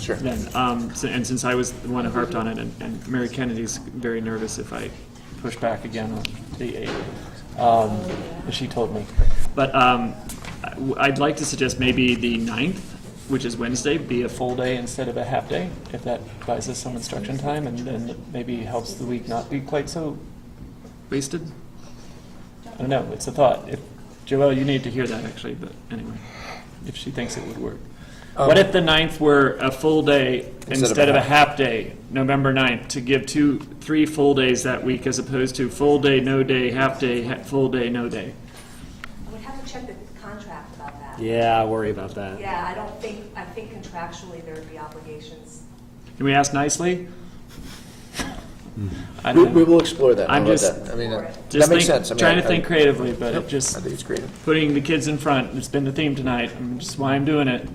Sure. Then, um, si- and since I was the one who harped on it, and, and Mary Kennedy's very nervous if I push back again on the eight, um, she told me. But, um, I- w- I'd like to suggest maybe the ninth, which is Wednesday, be a full day instead of a half day, if that buys us some instruction time, and then maybe helps the week not be quite so wasted. I don't know, it's a thought. If, Joelle, you need to hear that actually, but anyway, if she thinks it would work. What if the ninth were a full day Um, instead of a half day, November 9th, to give two, three full days that week as opposed to full day, no day, half day, ha- full day, no day? I would have to check the contract about that. Yeah, I worry about that. Yeah, I don't think, I think contractually there would be obligations. Can we ask nicely? I We, don't we know. will explore that. I'm I'll let just- that- I mean, uh, that Just makes think- sense. I mean, Trying to I- think creatively, but Yep, it just, I think it's creative. putting the kids in front, it's been the theme tonight, and just why I'm doing it.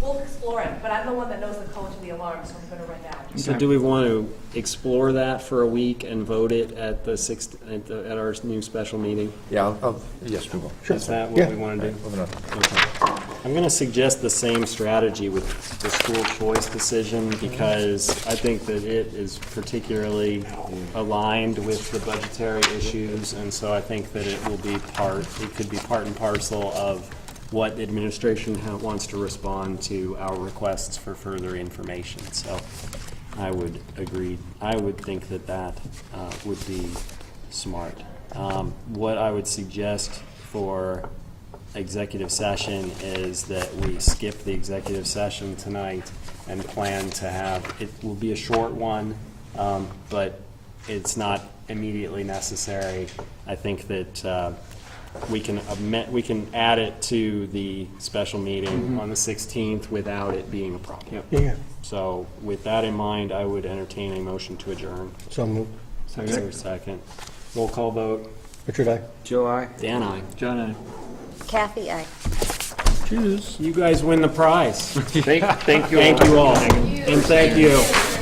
We'll explore it, but I'm the one that knows the code to the alarm, so I'm gonna run down. So do we want to explore that for a week and vote it at the sixth, at the, at our new special meeting? Yeah, I'll- I'll, yes, we will. Sure. Is that what we want to do? Moving on. I'm going to suggest the same strategy with the school choice decision because I think that it is particularly aligned with the budgetary issues. And so I think that it will be part, it could be part and parcel of what administration ha- wants to respond to our requests for further information. So I would agree, I would think that that uh, would be smart. Um, What I would suggest for executive session is that we skip the executive session tonight and plan to have, it will be a short one, um, but it's not immediately necessary. I think that uh, we can amend, we can add it to the special meeting on the 16th without it being a problem. Yeah, So with that in mind, I would entertain a motion to adjourn. so moved. Is there a second? Roll call vote. Richard, I. Dan, I. John, I- Kathy, I. You guys win the prize. Thank you all. Thank you all. And thank you.